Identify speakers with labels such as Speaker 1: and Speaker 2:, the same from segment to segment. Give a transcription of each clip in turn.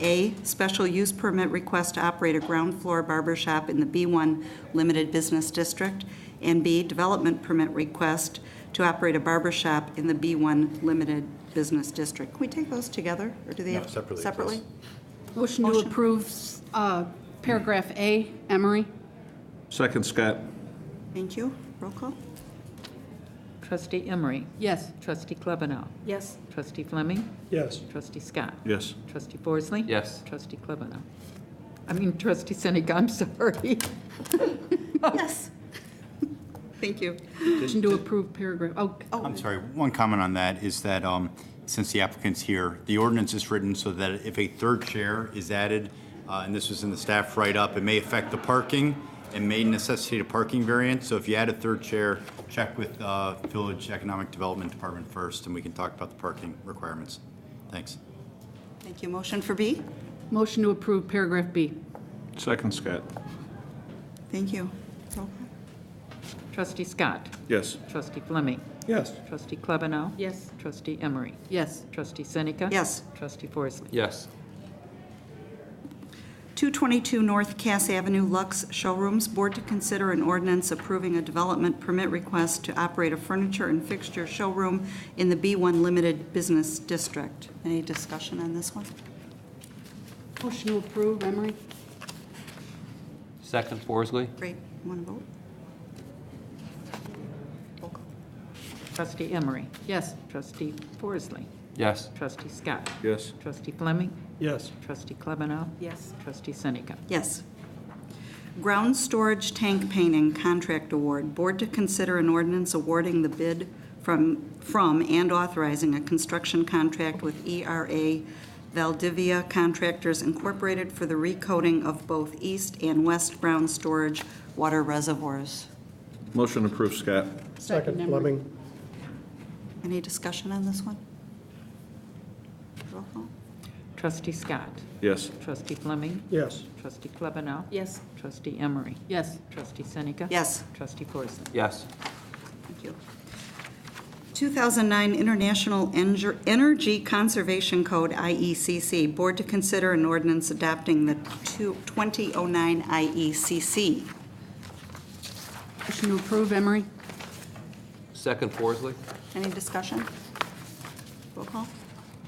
Speaker 1: A, special use permit request to operate a ground floor barber shop in the B1 Limited Business District, and B, development permit request to operate a barber shop in the B1 Limited Business District. Can we take those together, or do they
Speaker 2: No,
Speaker 1: have?
Speaker 2: separately, please.
Speaker 1: Separately?
Speaker 3: Motion to
Speaker 1: Motion.
Speaker 3: approve uh, paragraph A, Emery.
Speaker 4: Second, Scott.
Speaker 1: Thank you. Roll call?
Speaker 5: Trustee Emery.
Speaker 3: Yes.
Speaker 5: Trustee Klebanow.
Speaker 3: Yes.
Speaker 5: Trustee Fleming.
Speaker 6: yes,
Speaker 5: Trustee Scott.
Speaker 4: Yes.
Speaker 5: Trustee Forsley.
Speaker 7: Yes.
Speaker 5: Trustee Klebanow. I mean, trustee Sinek, I'm sorry.
Speaker 1: Yes. Thank you.
Speaker 3: Motion to approve paragraph, oh,
Speaker 8: I'm sorry, one comment on that is that um, since the applicant's here, the ordinance is written so that if a third chair is added, uh, and this was in the staff write-up, it may affect the parking and may necessitate a parking variance. So if you add a third chair, check with uh, Village Economic Development Department first, and we can talk about the parking requirements. Thanks.
Speaker 1: Thank you. Motion for B?
Speaker 3: motion to approve paragraph B.
Speaker 4: Second, Scott.
Speaker 1: Thank you. Roll call?
Speaker 5: Trustee Scott.
Speaker 4: Yes.
Speaker 5: Trustee Fleming.
Speaker 6: yes.
Speaker 5: Trustee Klebanow.
Speaker 3: Yes.
Speaker 5: Trustee Emery.
Speaker 3: Yes.
Speaker 5: Trustee Sinek.
Speaker 1: Yes.
Speaker 5: Trustee Forsley.
Speaker 7: yes,
Speaker 1: 222 North Cass Avenue Lux Showrooms, Board to consider an ordinance approving a development permit request to operate a furniture and fixture showroom in the B1 Limited Business District. Any discussion on this one?
Speaker 3: Motion to approve, Emery.
Speaker 7: second Forsley,
Speaker 1: Great, want to vote? Roll call.
Speaker 5: Trustee Emery.
Speaker 3: Yes.
Speaker 5: Trustee Forsley.
Speaker 7: yes,
Speaker 5: Trustee Scott.
Speaker 4: Yes.
Speaker 5: Trustee Fleming.
Speaker 6: Yes.
Speaker 5: Trustee Klebanow.
Speaker 3: Yes.
Speaker 5: Trustee Sinek.
Speaker 1: Yes. Ground storage tank painting contract award. Board to consider an ordinance awarding the bid from, from and authorizing a construction contract with ERA Valdivia Contractors Incorporated for the recoding of both east and west ground storage water reservoirs.
Speaker 4: Motion approved, Scott.
Speaker 6: Second,
Speaker 3: Emery.
Speaker 6: Fleming,
Speaker 1: Any discussion on this one? Roll call?
Speaker 5: Trustee Scott.
Speaker 4: Yes.
Speaker 5: Trustee Fleming.
Speaker 6: yes.
Speaker 5: Trustee Klebanow.
Speaker 3: Yes.
Speaker 5: Trustee Emery.
Speaker 3: Yes.
Speaker 5: Trustee Seneca?
Speaker 1: Yes.
Speaker 5: Trustee Forsley?
Speaker 7: yes,
Speaker 1: Thank you. 2009 International Enger- Energy Conservation Code, IECC. Board to consider an ordinance adopting the two- 2009 IECC.
Speaker 3: Motion to approve, Emery.
Speaker 7: second Forsley,
Speaker 1: Any discussion? Roll call?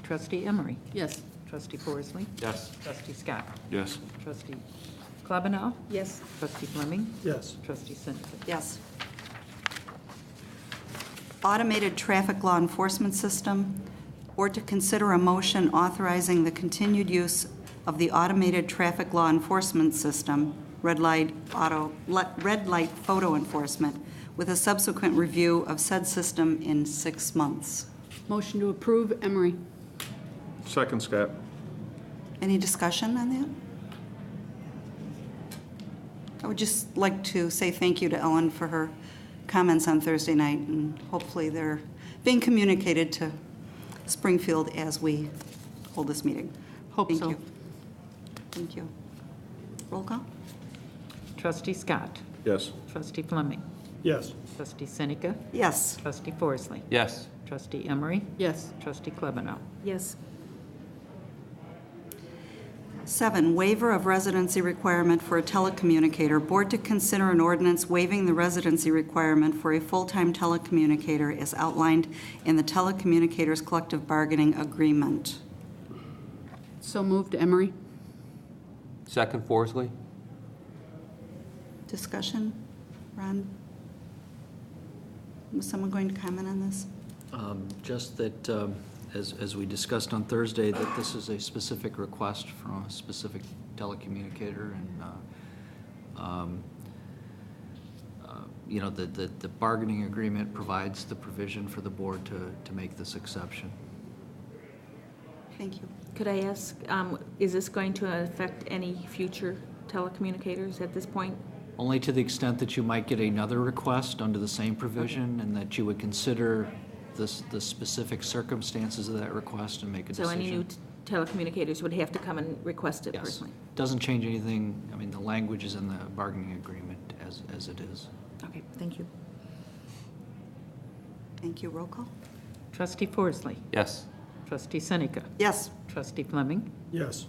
Speaker 5: Trustee Emery?
Speaker 3: Yes.
Speaker 5: Trustee Forsley?
Speaker 7: yes,
Speaker 5: Trustee Scott?
Speaker 4: Yes.
Speaker 5: Trustee Klebanow?
Speaker 3: Yes.
Speaker 5: Trustee Fleming?
Speaker 6: Yes.
Speaker 5: Trustee Seneca?
Speaker 1: Yes. Automated Traffic Law Enforcement System, or to consider a motion authorizing the continued use of the Automated Traffic Law Enforcement System, red light auto, le- red light photo enforcement, with a subsequent review of said system in six months.
Speaker 3: Motion to approve, Emery.
Speaker 4: Second, Scott.
Speaker 1: Any discussion on that? I would just like to say thank you to Ellen for her comments on Thursday night, and hopefully they're being communicated to Springfield as we hold this meeting.
Speaker 3: Hope
Speaker 1: Thank
Speaker 3: so.
Speaker 1: you. Thank you. Roll call?
Speaker 5: Trustee Scott?
Speaker 4: Yes.
Speaker 5: Trustee Fleming?
Speaker 6: Yes.
Speaker 5: Trustee Seneca?
Speaker 1: Yes.
Speaker 5: Trustee Forsley?
Speaker 7: yes,
Speaker 5: Trustee Emery?
Speaker 3: Yes.
Speaker 5: Trustee Klebanow?
Speaker 3: Yes.
Speaker 1: Seven, waiver of residency requirement for a telecommunicator. Board to consider an ordinance waiving the residency requirement for a full-time telecommunicator as outlined in the Telecommunicators Collective Bargaining Agreement.
Speaker 3: So moved, Emery.
Speaker 7: second Forsley,
Speaker 1: Discussion? Ron? Was someone going to comment on this?
Speaker 9: Um, Just that, um, as, as we discussed on Thursday, that this is a specific request from a specific telecommunicator, and, uh, um, uh, you know, the, the the bargaining agreement provides the provision for the board to, to make this exception.
Speaker 1: Thank you.
Speaker 10: Could I ask, um, is this going to affect any future telecommunicators at this point?
Speaker 9: Only to the extent that you might get another request under the same provision, and that you would consider this, the specific circumstances of that request and make a
Speaker 10: So
Speaker 9: decision.
Speaker 10: any new t- telecommunicators would have to come and request it
Speaker 9: Yes.
Speaker 10: personally?
Speaker 9: Doesn't change anything, I mean, the language is in the bargaining agreement as, as it is.
Speaker 10: Okay, thank you.
Speaker 1: Thank you. Roll call?
Speaker 5: Trustee Forsley?
Speaker 7: yes,
Speaker 5: Trustee Seneca?
Speaker 1: Yes.
Speaker 5: Trustee Fleming?
Speaker 6: Yes.